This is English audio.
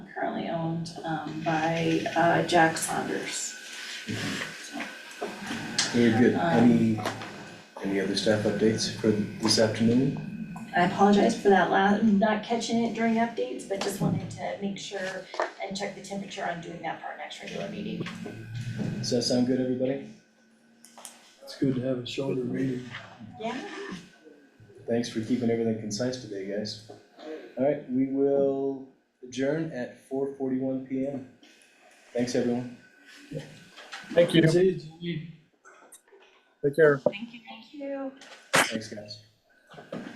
and um by uh Jack Saunders. Very good. Any, any other staff updates for this afternoon? I apologize for that last, not catching it during updates, but just wanted to make sure and check the temperature on doing that for our next regular meeting. Does that sound good, everybody? It's good to have a shorter meeting. Yeah. Thanks for keeping everything concise today, guys. Alright, we will adjourn at four forty-one P M. Thanks, everyone. Thank you. See, you- you Take care. Thank you. Thanks, guys.